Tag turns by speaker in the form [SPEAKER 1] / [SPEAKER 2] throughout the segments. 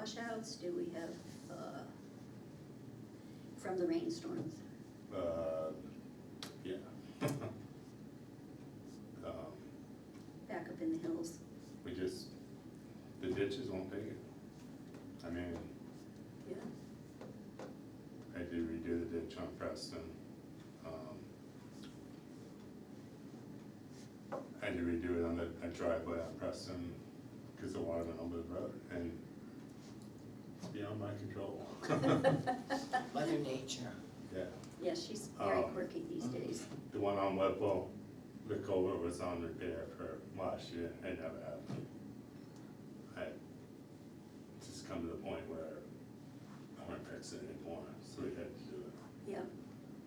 [SPEAKER 1] washouts? Do we have, uh, from the rainstorms?
[SPEAKER 2] Uh, yeah. Um,
[SPEAKER 1] Back up in the hills?
[SPEAKER 2] We just, the ditches won't take it. I mean,
[SPEAKER 1] Yeah.
[SPEAKER 2] I did redo the ditch on Preston. Um, I had to redo it on the, a driveway on Preston, cause the water went over the road and it's beyond my control.
[SPEAKER 3] Mother Nature.
[SPEAKER 2] Yeah,
[SPEAKER 1] Yeah, she's very
[SPEAKER 2] Um,
[SPEAKER 1] quirky these days.
[SPEAKER 2] the one on Whipple, the culvert was on repair for last year, it never happened. I just come to the point where I won't fix it anymore, so we had to do it.
[SPEAKER 1] Yeah,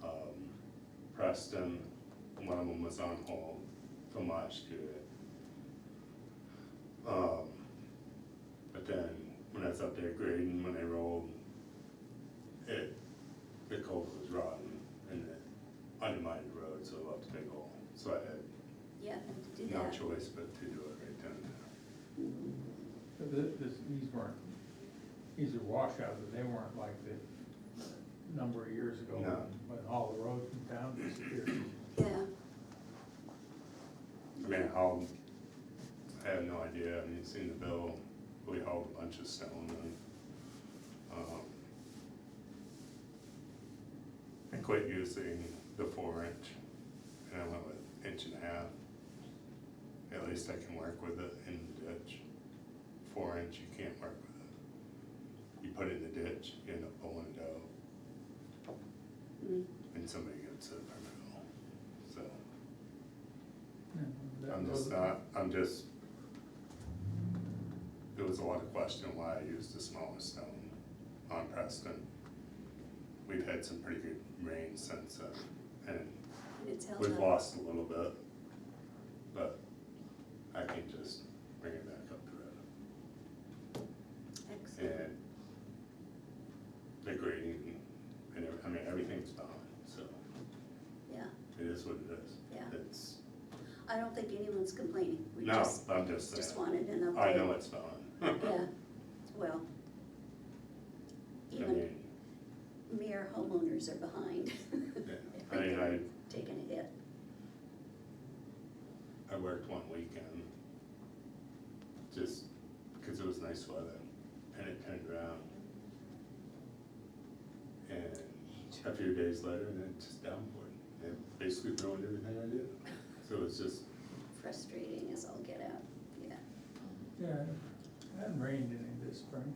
[SPEAKER 2] um, Preston, one of them was on hold from last year. Um, but then when I was up there grading, when they rolled, it, the culvert was rotten and it undermined the road, so it left a big hole. So I
[SPEAKER 1] yeah, and to do
[SPEAKER 2] had
[SPEAKER 1] that.
[SPEAKER 2] no choice but to do it right then and there.
[SPEAKER 4] But th- this, these weren't, these are washouts, but they weren't like the number of years ago
[SPEAKER 2] No.
[SPEAKER 4] when all the roads in town disappeared.
[SPEAKER 1] Yeah,
[SPEAKER 2] I mean, how, I have no idea, I mean, you've seen the bill, we hauled a bunch of stone and, um, I quit using the four inch, and I went with inch and a half. At least I can work with it in the ditch. Four inch, you can't work with it. You put it in the ditch, you end up pulling it out,
[SPEAKER 1] mm,
[SPEAKER 2] and somebody gets it from it, so.
[SPEAKER 4] Yeah, that
[SPEAKER 2] I'm just
[SPEAKER 4] was-
[SPEAKER 2] not, I'm just, there was a lot of question why I used the smallest stone on Preston. We've had some pretty good rain since then, and
[SPEAKER 1] and it's held
[SPEAKER 2] we've
[SPEAKER 1] up.
[SPEAKER 2] lost a little bit, but I can just bring it back up to it.
[SPEAKER 1] Excellent.
[SPEAKER 2] And the grading, and, every- I mean, everything's fine, so
[SPEAKER 1] Yeah,
[SPEAKER 2] it is what it is.
[SPEAKER 1] Yeah.
[SPEAKER 2] It's,
[SPEAKER 1] I don't think anyone's complaining. We
[SPEAKER 2] no,
[SPEAKER 1] just,
[SPEAKER 2] I'm just
[SPEAKER 1] just
[SPEAKER 2] saying,
[SPEAKER 1] wanted an update.
[SPEAKER 2] I know it's fine.
[SPEAKER 1] Yeah, well,
[SPEAKER 2] I
[SPEAKER 1] even
[SPEAKER 2] mean,
[SPEAKER 1] mere homeowners are behind.
[SPEAKER 2] Yeah,
[SPEAKER 1] I
[SPEAKER 2] I mean,
[SPEAKER 1] think
[SPEAKER 2] I,
[SPEAKER 1] they're taking a hit.
[SPEAKER 2] I worked one weekend, just because it was nice weather, and it turned around. And a few days later, and it just downpoured, and basically ruined everything I did, so it was just,
[SPEAKER 1] Frustrating as all get out, yeah.
[SPEAKER 4] Yeah, it hadn't rained any this spring.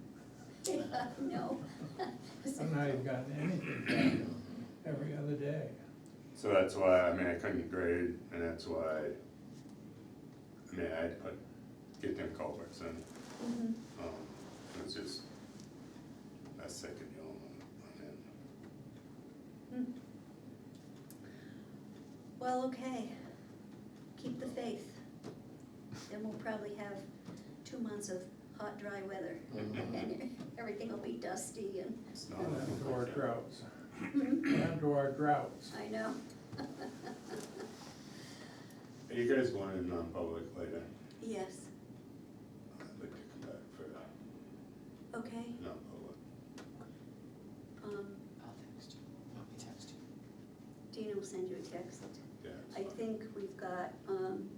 [SPEAKER 1] Yeah, No.
[SPEAKER 4] I've not even gotten anything done every other day.
[SPEAKER 2] so that's why, I mean, I couldn't grade, and that's why, I mean, I had to put, get them culverts in,
[SPEAKER 1] Mhm.
[SPEAKER 2] um, it was just, a second yawn on, on it.
[SPEAKER 1] Well, okay, keep the faith. Then we'll probably have two months of hot, dry weather, and everything will be dusty and,
[SPEAKER 2] It's not.
[SPEAKER 4] We're down to our droughts,
[SPEAKER 1] Mhm.
[SPEAKER 4] We're down to our droughts.
[SPEAKER 1] I know.
[SPEAKER 2] Are you guys going in non-public later?
[SPEAKER 1] Yes,
[SPEAKER 2] I'd like to come back for
[SPEAKER 1] okay,
[SPEAKER 2] non-public.
[SPEAKER 1] um,
[SPEAKER 3] I'll text you. Want me to text you?
[SPEAKER 1] Dina will send you a text.
[SPEAKER 2] Yeah.
[SPEAKER 1] I think we've got, um,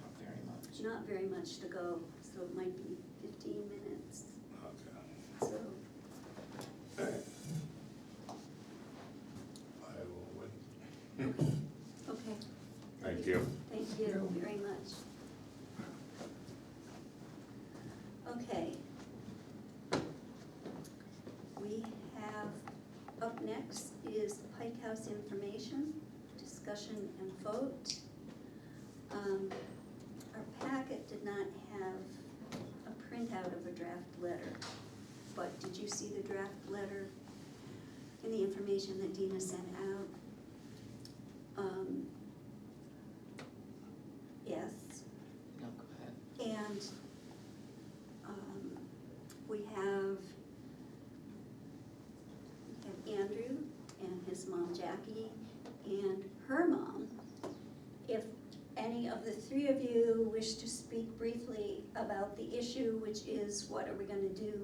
[SPEAKER 3] Not very much.
[SPEAKER 1] not very much to go, so it might be fifteen minutes,
[SPEAKER 2] Okay.
[SPEAKER 1] so,
[SPEAKER 2] I will wait.
[SPEAKER 1] okay.
[SPEAKER 2] Thank you.
[SPEAKER 1] Thank you very much. Okay. We have, up next is Pike House information, discussion and vote. Um, Our packet did not have a printout of a draft letter, but did you see the draft letter and the information that Dina sent out? Um, Yes,
[SPEAKER 3] No, go ahead.
[SPEAKER 1] and um, we have, we have Andrew and his mom Jackie and her mom. If any of the three of you wish to speak briefly about the issue, which is what are we gonna do